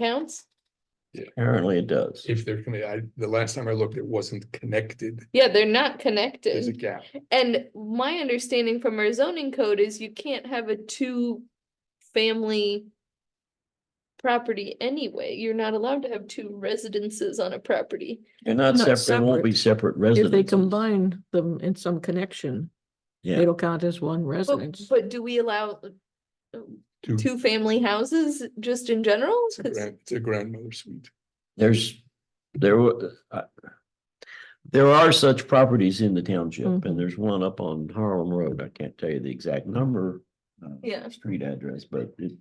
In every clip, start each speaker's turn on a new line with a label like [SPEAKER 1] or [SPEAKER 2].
[SPEAKER 1] counts?
[SPEAKER 2] Apparently it does.
[SPEAKER 3] If they're gonna, I, the last time I looked, it wasn't connected.
[SPEAKER 1] Yeah, they're not
[SPEAKER 3] There's a
[SPEAKER 1] connected.
[SPEAKER 3] gap.
[SPEAKER 1] And my understanding from our zoning code is you can't have a two-family property anyway. You're not allowed to have two residences on a property.
[SPEAKER 2] They're not
[SPEAKER 4] Not
[SPEAKER 2] separate, it won't be separate
[SPEAKER 4] If they
[SPEAKER 2] residents.
[SPEAKER 4] combine them in some connection,
[SPEAKER 2] Yeah,
[SPEAKER 4] it'll count as one
[SPEAKER 1] But,
[SPEAKER 4] residence.
[SPEAKER 1] but do we allow
[SPEAKER 3] Two-
[SPEAKER 1] two-family houses just in general?
[SPEAKER 3] It's a
[SPEAKER 1] 'Cause-
[SPEAKER 3] grand- it's a grandmother suite.
[SPEAKER 2] there's, there were, uh, there are such properties in the township and there's one up on Harlem Road. I can't tell you the exact number. uh,
[SPEAKER 1] Yeah.
[SPEAKER 2] Street address, but it,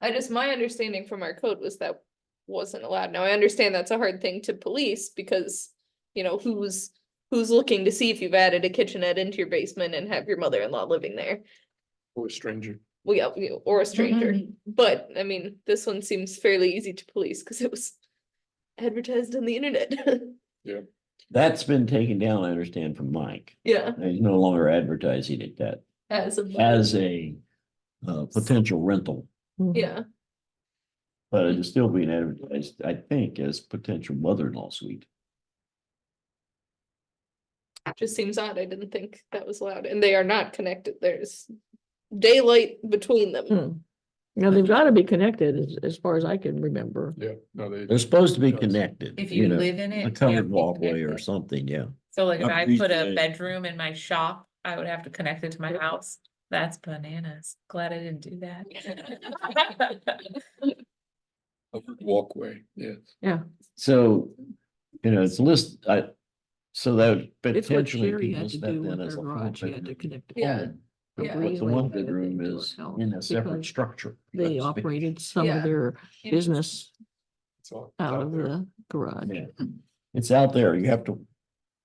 [SPEAKER 1] I just, my understanding from our code was that wasn't allowed. Now, I understand that's a hard thing to police because, you know, who's, who's looking to see if you've added a kitchenette into your basement and have your mother-in-law living there?
[SPEAKER 3] Or a stranger.
[SPEAKER 1] Well, yeah, you know, or a stranger.
[SPEAKER 4] Mm-hmm.
[SPEAKER 1] But, I mean, this one seems fairly easy to police because it was advertised on the internet.
[SPEAKER 2] that's been taken down, I understand, from Mike.
[SPEAKER 1] Yeah,
[SPEAKER 2] He's no longer advertising it that
[SPEAKER 1] as of.
[SPEAKER 2] as a uh, potential rental,
[SPEAKER 4] Mhm.
[SPEAKER 1] Yeah,
[SPEAKER 2] but it is still being advertised, I think, as potential mother-in-law suite.
[SPEAKER 1] just seems odd. I didn't think that was allowed and they are not connected. There's daylight between them.
[SPEAKER 4] Hmm. Now, they've got to be connected as, as far as I can remember.
[SPEAKER 3] Yeah, no, they.
[SPEAKER 2] They're supposed to be
[SPEAKER 3] Yes.
[SPEAKER 2] connected,
[SPEAKER 5] If
[SPEAKER 2] you
[SPEAKER 5] you
[SPEAKER 2] know,
[SPEAKER 5] live in it.
[SPEAKER 2] a
[SPEAKER 5] it
[SPEAKER 2] covered
[SPEAKER 5] can't be
[SPEAKER 2] walkway or
[SPEAKER 5] connected.
[SPEAKER 2] something, yeah.
[SPEAKER 5] So like if
[SPEAKER 2] Not
[SPEAKER 5] I
[SPEAKER 2] these
[SPEAKER 5] put a
[SPEAKER 2] days.
[SPEAKER 5] bedroom in my shop, I would have to connect it to my house. That's bananas. Glad I didn't do that.
[SPEAKER 3] covered Walkway, yeah.
[SPEAKER 2] So, you know, it's list, I, so that would
[SPEAKER 4] It's what
[SPEAKER 2] potentially
[SPEAKER 4] Sherry
[SPEAKER 2] people
[SPEAKER 4] had to
[SPEAKER 2] step
[SPEAKER 4] do
[SPEAKER 2] in
[SPEAKER 4] with
[SPEAKER 2] as
[SPEAKER 4] her
[SPEAKER 2] a
[SPEAKER 4] garage. She
[SPEAKER 2] four
[SPEAKER 4] had to
[SPEAKER 2] bedroom.
[SPEAKER 4] connect. it.
[SPEAKER 1] Yeah.
[SPEAKER 2] home,
[SPEAKER 1] Yeah.
[SPEAKER 2] But
[SPEAKER 1] Yeah.
[SPEAKER 2] what the
[SPEAKER 4] Really
[SPEAKER 2] one
[SPEAKER 4] had to
[SPEAKER 2] bedroom
[SPEAKER 4] do it
[SPEAKER 2] is
[SPEAKER 4] herself
[SPEAKER 2] in a separate
[SPEAKER 4] because
[SPEAKER 2] structure.
[SPEAKER 4] They
[SPEAKER 2] That's-
[SPEAKER 4] operated some
[SPEAKER 1] Yeah.
[SPEAKER 4] of their business
[SPEAKER 3] It's all- it's
[SPEAKER 4] out
[SPEAKER 3] out
[SPEAKER 4] of
[SPEAKER 3] there.
[SPEAKER 4] the garage.
[SPEAKER 2] Yeah. It's out there, you have to,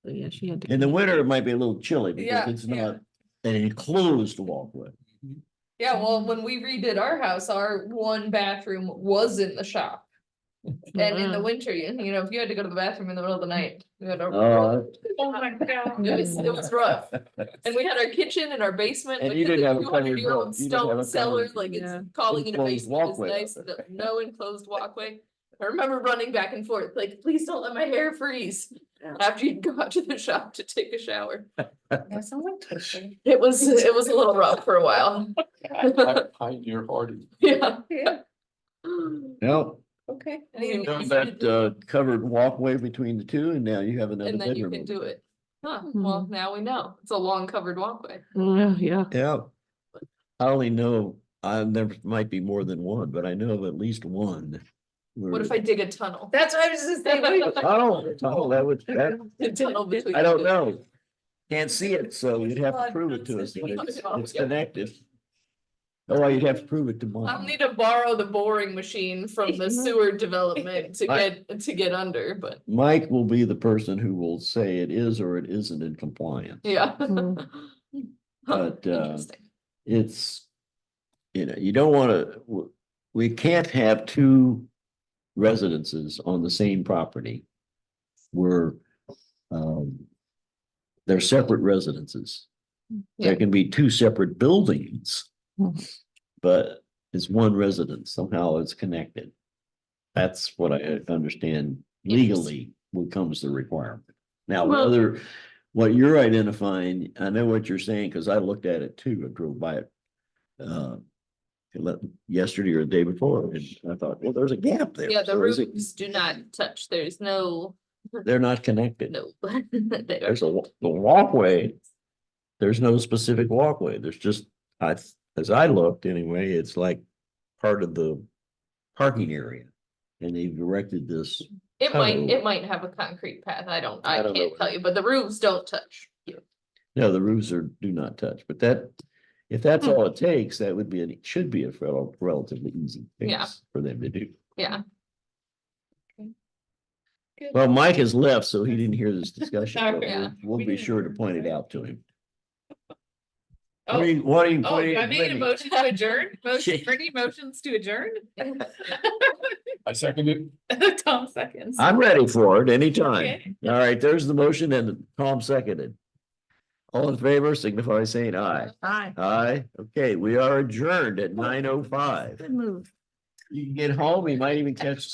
[SPEAKER 4] So, Yeah, she had to.
[SPEAKER 2] in the
[SPEAKER 4] connect
[SPEAKER 2] winter, it might be a little chilly because
[SPEAKER 1] Yeah,
[SPEAKER 2] it's
[SPEAKER 1] yeah.
[SPEAKER 2] not an enclosed walkway.
[SPEAKER 1] Yeah, well, when we redid our house, our one bathroom was in the shop.
[SPEAKER 4] it.
[SPEAKER 1] And in the
[SPEAKER 2] Mm-hmm.
[SPEAKER 4] Wow.
[SPEAKER 1] winter, you, you know, if you had to go to the bathroom in the middle of the night, you had to.
[SPEAKER 2] Oh,
[SPEAKER 1] Oh my God. It was, it was rough. And we had our kitchen and our basement.
[SPEAKER 2] And
[SPEAKER 1] which
[SPEAKER 2] you
[SPEAKER 1] is
[SPEAKER 2] didn't have a
[SPEAKER 1] two hundred
[SPEAKER 2] covered
[SPEAKER 1] year
[SPEAKER 2] door.
[SPEAKER 1] old
[SPEAKER 2] You didn't have a
[SPEAKER 1] Stone cellar,
[SPEAKER 2] covered-
[SPEAKER 1] like
[SPEAKER 4] Yeah.
[SPEAKER 1] it's calling it a
[SPEAKER 2] Enclosed
[SPEAKER 1] basement is
[SPEAKER 2] walkway.
[SPEAKER 1] nice, no- no enclosed walkway. I remember running back and forth, like, please don't let my hair freeze
[SPEAKER 4] Yeah.
[SPEAKER 1] after you'd go out to the shop to take a shower.
[SPEAKER 5] There's someone kissing.
[SPEAKER 1] It was, it was a little rough for a while.
[SPEAKER 3] Pi- Pioneer Hardy.
[SPEAKER 1] Yeah.
[SPEAKER 5] Yeah,
[SPEAKER 2] Well,
[SPEAKER 5] okay.
[SPEAKER 1] Anything
[SPEAKER 2] Done
[SPEAKER 1] you can
[SPEAKER 2] that
[SPEAKER 1] do.
[SPEAKER 2] uh covered walkway between the two and now you have another
[SPEAKER 1] And then you can
[SPEAKER 2] bedroom.
[SPEAKER 1] do it. Huh,
[SPEAKER 5] Hmm.
[SPEAKER 1] well,
[SPEAKER 4] Mhm.
[SPEAKER 1] now we know. It's a long covered walkway.
[SPEAKER 4] Uh, Yeah, yeah.
[SPEAKER 2] Yeah. I only know, I never, might be more than one, but I know of at least one.
[SPEAKER 1] What if I
[SPEAKER 2] where-
[SPEAKER 1] dig a tunnel?
[SPEAKER 5] That's what I was just saying.
[SPEAKER 2] Oh, oh, that would, that,
[SPEAKER 1] A tunnel between
[SPEAKER 2] I don't
[SPEAKER 1] the-
[SPEAKER 2] know. Can't see it, so you'd have to prove it to us. that It's it's connected. Oh, well, you'd have to prove it to
[SPEAKER 1] I'll
[SPEAKER 2] mine.
[SPEAKER 1] need to borrow the boring machine from the sewer development to
[SPEAKER 2] I-
[SPEAKER 1] get, to get under, but
[SPEAKER 2] Mike will be the person who will say it is or it isn't in compliance.
[SPEAKER 1] yeah.
[SPEAKER 4] Hmm.
[SPEAKER 1] Huh,
[SPEAKER 2] But, uh,
[SPEAKER 1] interesting.
[SPEAKER 2] it's, you know, you don't wanna, w- we can't have two residences on the same property. Where, um, they're separate residences. There
[SPEAKER 1] Yeah.
[SPEAKER 2] can be two separate buildings.
[SPEAKER 4] Hmm.
[SPEAKER 2] But it's one residence, somehow it's connected. That's what I understand legally when comes to requirement. Now,
[SPEAKER 4] Well-
[SPEAKER 2] whether, what you're identifying, I know what you're saying, because I looked at it too, I drove by it. Uh, le- yesterday or the day before, and I thought, well, there's a gap there.
[SPEAKER 1] Yeah, the
[SPEAKER 2] So is it-
[SPEAKER 1] roofs do not touch. There's no,
[SPEAKER 2] They're not connected.
[SPEAKER 1] no. Oh, They are-
[SPEAKER 2] There's a, wa- the walkway. There's no specific walkway. There's just, I, as I looked anyway, it's like part of the parking area. And they've erected this,
[SPEAKER 1] It might,
[SPEAKER 2] tunnel.
[SPEAKER 1] it might have a concrete path. I don't, I
[SPEAKER 2] I don't know
[SPEAKER 1] can't
[SPEAKER 2] what
[SPEAKER 1] tell you, but the roofs don't touch.
[SPEAKER 2] no, the roofs are, do not touch, but that, if
[SPEAKER 5] Hmm.
[SPEAKER 2] that's all it takes, that would be, an- it should be a rel- relatively easy
[SPEAKER 1] Yeah.
[SPEAKER 2] fix for them to do.
[SPEAKER 1] Yeah.
[SPEAKER 2] Well, Mike has left, so he didn't hear this discussion, but
[SPEAKER 1] Sorry.
[SPEAKER 2] we'll- we'll be sure to point it out to him. I
[SPEAKER 1] Oh.
[SPEAKER 2] mean, what are you
[SPEAKER 5] Oh,
[SPEAKER 2] pointing
[SPEAKER 5] do I
[SPEAKER 2] at
[SPEAKER 5] need a
[SPEAKER 2] Brittany?
[SPEAKER 5] motion to adjourn? Motion,
[SPEAKER 2] Shit.
[SPEAKER 5] Brittany motions to adjourn?
[SPEAKER 3] I second it.
[SPEAKER 5] Tom seconds.
[SPEAKER 2] I'm ready for it anytime.
[SPEAKER 5] Okay.
[SPEAKER 2] All right, there's the motion and Tom seconded. All in favor signify by saying aye.
[SPEAKER 5] Hi.
[SPEAKER 2] Aye. Okay, we are adjourned at nine oh five.
[SPEAKER 4] Good move.
[SPEAKER 2] You can get home, you might even catch